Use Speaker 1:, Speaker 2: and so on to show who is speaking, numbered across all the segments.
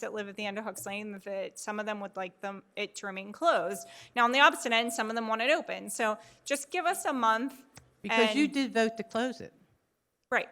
Speaker 1: that live at the end of Hooks Lane that some of them would like them, it to remain closed. Now, on the opposite end, some of them want it open. So just give us a month.
Speaker 2: Because you
Speaker 1: and-
Speaker 2: did vote to close it.
Speaker 1: Right.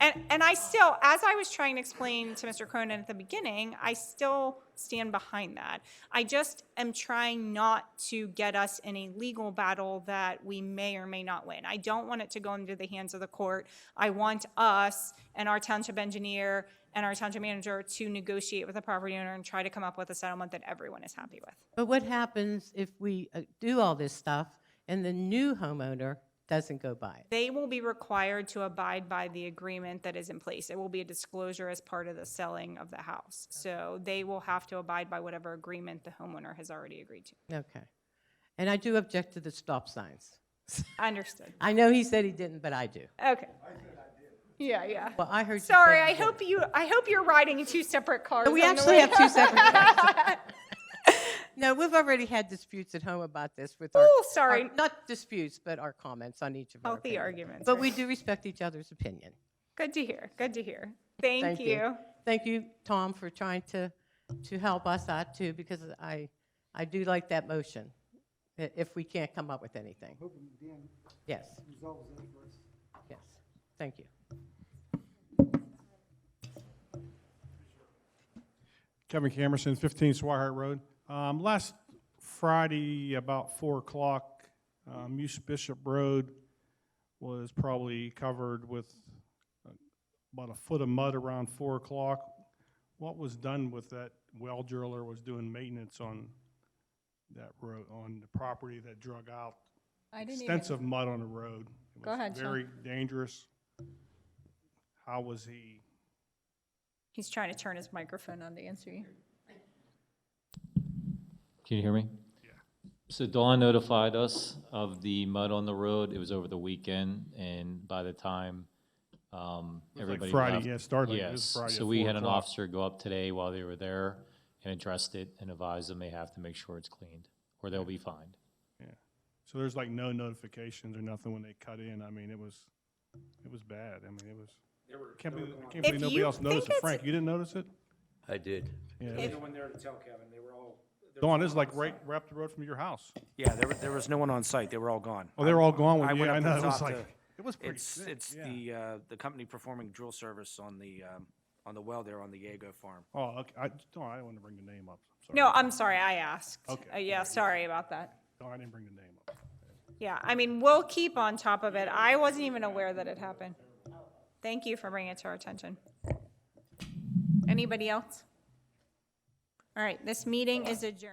Speaker 1: And, and I still, as I was trying to explain to Mr. Cronin at the beginning, I still stand behind that. I just am trying not to get us in a legal battle that we may or may not win. I don't want it to go into the hands of the court. I want us and our township engineer and our township manager to negotiate with the property owner and try to come up with a settlement that everyone is happy with.
Speaker 2: But what happens if we uh, do all this stuff and the new homeowner doesn't go by it?
Speaker 1: They will be required to abide by the agreement that is in place. It will be a disclosure as part of the selling of the house. So they will have to abide by whatever agreement the homeowner has already agreed to.
Speaker 2: Okay. And I do object to the stop signs.
Speaker 1: Understood.
Speaker 2: I know he said he didn't, but I do.
Speaker 1: Okay. Yeah, yeah.
Speaker 2: Well, I heard you say
Speaker 1: Sorry,
Speaker 2: you
Speaker 1: I
Speaker 2: did.
Speaker 1: hope you, I hope you're riding in two separate cars.
Speaker 2: We
Speaker 1: on the
Speaker 2: actually
Speaker 1: way.
Speaker 2: have two separate cars. No, we've already had disputes at home about this with our.
Speaker 1: Ooh, sorry.
Speaker 2: our- Not disputes, but our comments on each of our.
Speaker 1: Healthy
Speaker 2: opinions.
Speaker 1: arguments,
Speaker 2: But
Speaker 1: right.
Speaker 2: we do respect each other's opinion.
Speaker 1: Good to hear. Good to hear. Thank you.
Speaker 2: Thank you, Tom, for trying to, to help us out too, because I, I do like that motion, i- if we can't come up with anything.
Speaker 3: hoping Dan
Speaker 2: Yes,
Speaker 3: resolves that for us.
Speaker 2: yes, thank you.
Speaker 4: Kevin Camerson, 15 Swihart Road. Um, Last Friday, about 4 o'clock, um, Muse Bishop Road was probably covered with uh, about a foot of mud around 4 o'clock. What was done with that well driller was doing maintenance on that road, on the property that drug out
Speaker 5: I didn't even,
Speaker 4: extensive mud on the road. It
Speaker 5: Go
Speaker 4: was
Speaker 5: ahead, Sean.
Speaker 4: Very dangerous. How was he?
Speaker 1: He's trying to turn his microphone.
Speaker 5: phone on to answer you.
Speaker 6: Can you hear me? Yeah. So Dawn notified us of the mud on the road. It was over the weekend, and by the time um,
Speaker 4: was like
Speaker 6: everybody
Speaker 4: Friday,
Speaker 6: left-
Speaker 4: yeah, it started like- it was
Speaker 6: yes.
Speaker 4: Friday at
Speaker 6: so we
Speaker 4: 4
Speaker 6: had an
Speaker 4: o'clock.
Speaker 6: officer go up today while they were there and addressed it and advised them they have to make sure it's cleaned or they'll be fined.
Speaker 4: So there's like no notifications or nothing when they cut in. I mean, it was, it was bad. I mean, it was. Can't believe, I can't
Speaker 1: If
Speaker 4: believe nobody
Speaker 1: you
Speaker 4: else noticed
Speaker 1: think
Speaker 4: it.
Speaker 1: it's-
Speaker 4: Frank, you didn't notice it?
Speaker 7: I did.
Speaker 4: Yeah.
Speaker 8: No one there to tell Kevin, they were all. there was
Speaker 4: Dawn,
Speaker 8: no
Speaker 4: this is
Speaker 8: one
Speaker 4: like
Speaker 8: on
Speaker 4: right,
Speaker 8: site.
Speaker 4: right up the road from your house.
Speaker 8: Yeah, there, wa- there was no one on site, they were all gone.
Speaker 4: Oh, they were all gone
Speaker 8: I
Speaker 4: when,
Speaker 8: went
Speaker 4: yeah, I know.
Speaker 8: up to the
Speaker 4: It was
Speaker 8: top
Speaker 4: like,
Speaker 8: to-
Speaker 4: it was pretty
Speaker 8: It's,
Speaker 4: sick.
Speaker 8: it's
Speaker 4: yeah.
Speaker 8: the, uh, the company performing drill service on the, um, on the well there on the Yago farm.
Speaker 4: Oh, okay. I, Dawn, I didn't want to bring the name up. I'm
Speaker 1: No,
Speaker 4: sorry.
Speaker 1: I'm sorry, I asked.
Speaker 4: Okay.
Speaker 1: Uh, Yeah, sorry about that.
Speaker 4: Dawn, I didn't bring the name up.
Speaker 1: Yeah, I mean, we'll keep on top of it. I wasn't even aware that it happened. Thank you for bringing it to our attention. Anybody else? All right, this meeting is adjourned.